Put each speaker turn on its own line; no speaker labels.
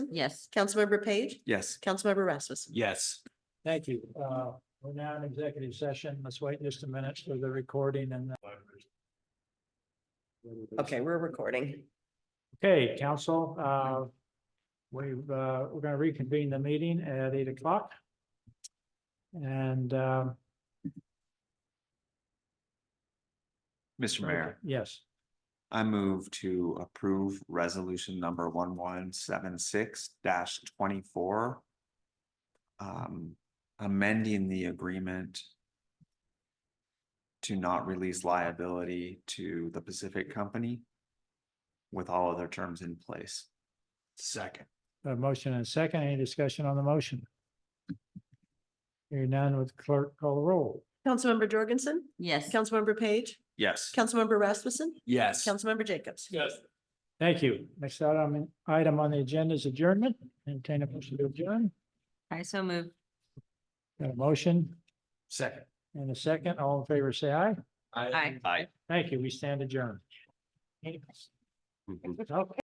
Yes.
Councilmember Page,
Yes.
Councilmember Rasmussen.
Yes.
Thank you. Uh, we're now in executive session. Let's wait just a minute for the recording and. the-
Okay, we're recording.
Okay, council, uh, we've, uh, we're gonna reconvene the meeting at eight o'clock. And, um,
Mr. Mayor,
yes,
I move to approve resolution number one one seven six twenty-four. Um, amending the agreement to not release liability to the Pacific Company with all other terms in place. Second.
a motion and a second. Any discussion on the motion? Hearing none with clerk call the roll.
Councilmember Jorgensen,
Yes.
Councilmember Page,
Yes.
Councilmember Rasmussen,
Yes.
Councilmember Jacobs.
Yes. Thank you. Next item, item on the agenda is adjournment. Entertain a motion to adjourn.
I so move.
Got a motion
Second.
and a second. All in favor, say aye.
Aye.
Aye.
Thank you. We stand adjourned. Okay.